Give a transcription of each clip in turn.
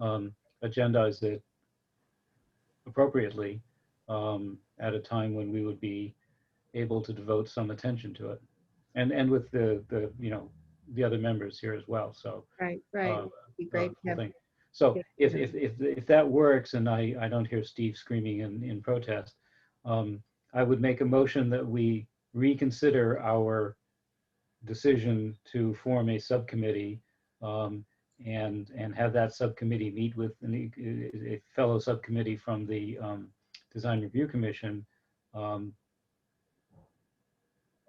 um, agendize it appropriately um, at a time when we would be able to devote some attention to it. And, and with the, the, you know, the other members here as well, so. Right, right. uh, It'd Be uh, great to have thing. So yeah. if, if, if, if that works and I, I don't hear Steve screaming in, in protest, um, I would make a motion that we reconsider our decision to form a subcommittee um, and, and have that subcommittee meet with an e- a fellow subcommittee from the um, Design Review Commission. um,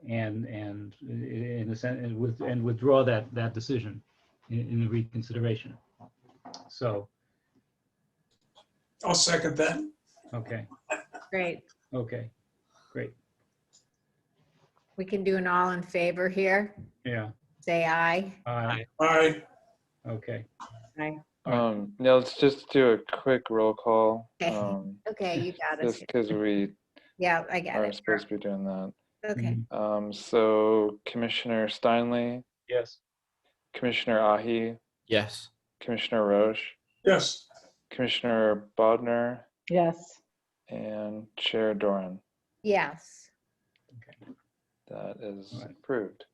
And, and in a sense, and with, and withdraw that, that decision in, in the reconsideration. So, I'll second that. okay, Great. okay, We can do an all in favor here. yeah, Say aye. aye, All right, okay. Alright. Um, now let's just do a quick roll call. Okay. Um, Okay, you got just it. because we Yeah, I got are it. supposed to be doing that. Okay, Mm-hmm. Um, so Commissioner Steinle, Yes, Commissioner Ahi, Yes. Commissioner Roche, yes, Commissioner Bodnar, Yes, and Chair Doran. yes. That is Alright. approved.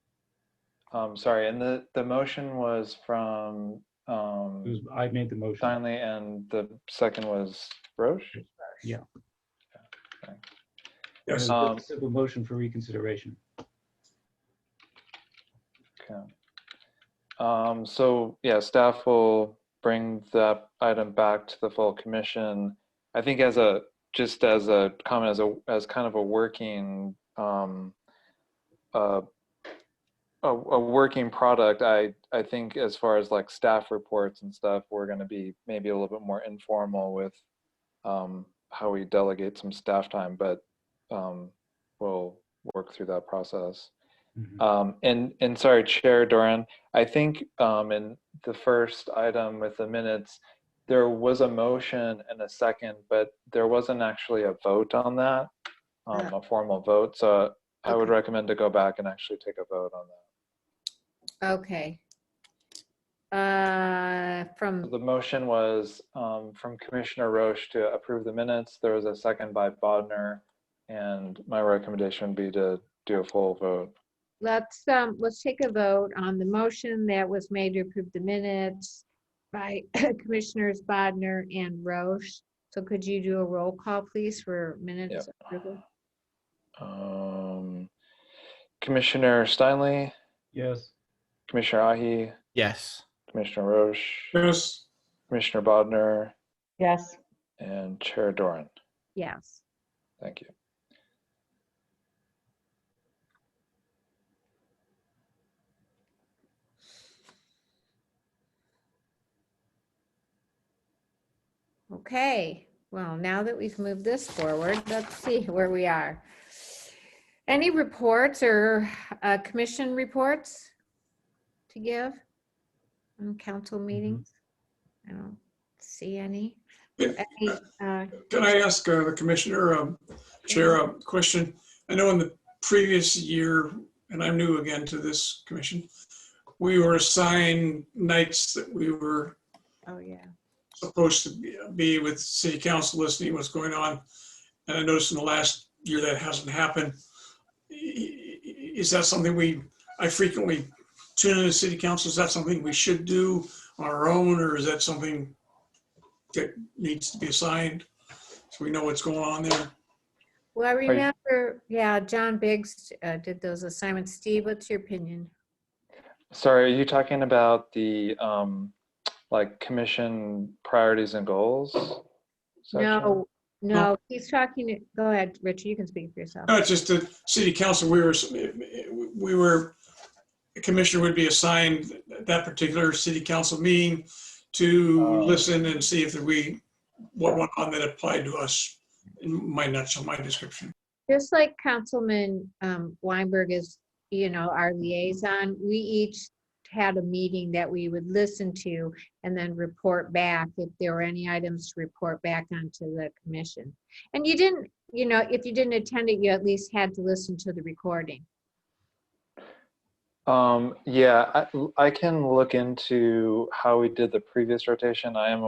Um, sorry, and the, the motion was from, it was, um, I made the motion. Steinle and the second was Roche? yes. Uh, Um, Simple motion for reconsideration. Okay. Um, so yeah, staff will bring that item back to the full commission. I think as a, just as a comment, as a, as kind of a working, um, uh, a, a working product, I, I think as far as like staff reports and stuff, we're gonna be maybe a little bit more informal with, um, how we delegate some staff time, but, um, we'll work through that process. Mhm. Um, and, and sorry, Chair Doran, I think um, in the first item with the minutes, there was a motion and a second, but there wasn't actually a vote on that, um, a formal vote. So I would Okay. recommend to go back and actually take a vote on that. Okay. Uh, So from, The motion was um, from Commissioner Roche to approve the minutes. There was a second by Bodnar. And my recommendation would be to do a full vote. let's, um, let's take a vote on the motion that was made to approve the minutes by Commissioners Bodnar and Roche. So could you do a roll call, please, for minutes? approval? Um, Commissioner Steinle, Yes, Commissioner Ahi, Yes. Commissioner Roche, Yes, Commissioner Bodnar, yes, and Chair Doran. Yes. Thank you. Okay, well, now that we've moved this forward, let's see where we are. Any reports or uh, commission reports to give? On council meetings? I don't see any. Yeah. Any, uh, can I ask uh, the commissioner, um, chair, a question? I know in the previous year, and I'm new again to this commission, we were assigned nights that we were Oh, yeah. supposed to be- be with city council listening what's going on. And I noticed in the last year that hasn't happened. I- i- Is that something we, I frequently tune into city council, is that something we should do on our own, or is that something that needs to be assigned? So we know what's going on there? Well, I you- remember, yeah, John Biggs uh, did those assignments. Steve, what's your opinion? Sorry, are you talking about the, um, like, commission priorities and goals? section? No, no, he's talking, go ahead, Richard, you can speak for yourself. No, it's just the city council, we were, we were, the commissioner would be assigned that particular city council meeting to Oh. listen and see if we, what went on that applied to us, in my nutshell, my description. Just like Councilman um, Weinberg is, you know, our liaison, we each had a meeting that we would listen to and then report back if there were any items to report back onto the commission. And you didn't, you know, if you didn't attend it, you at least had to listen to the recording. Um, yeah, I, I can look into how we did the previous rotation. I am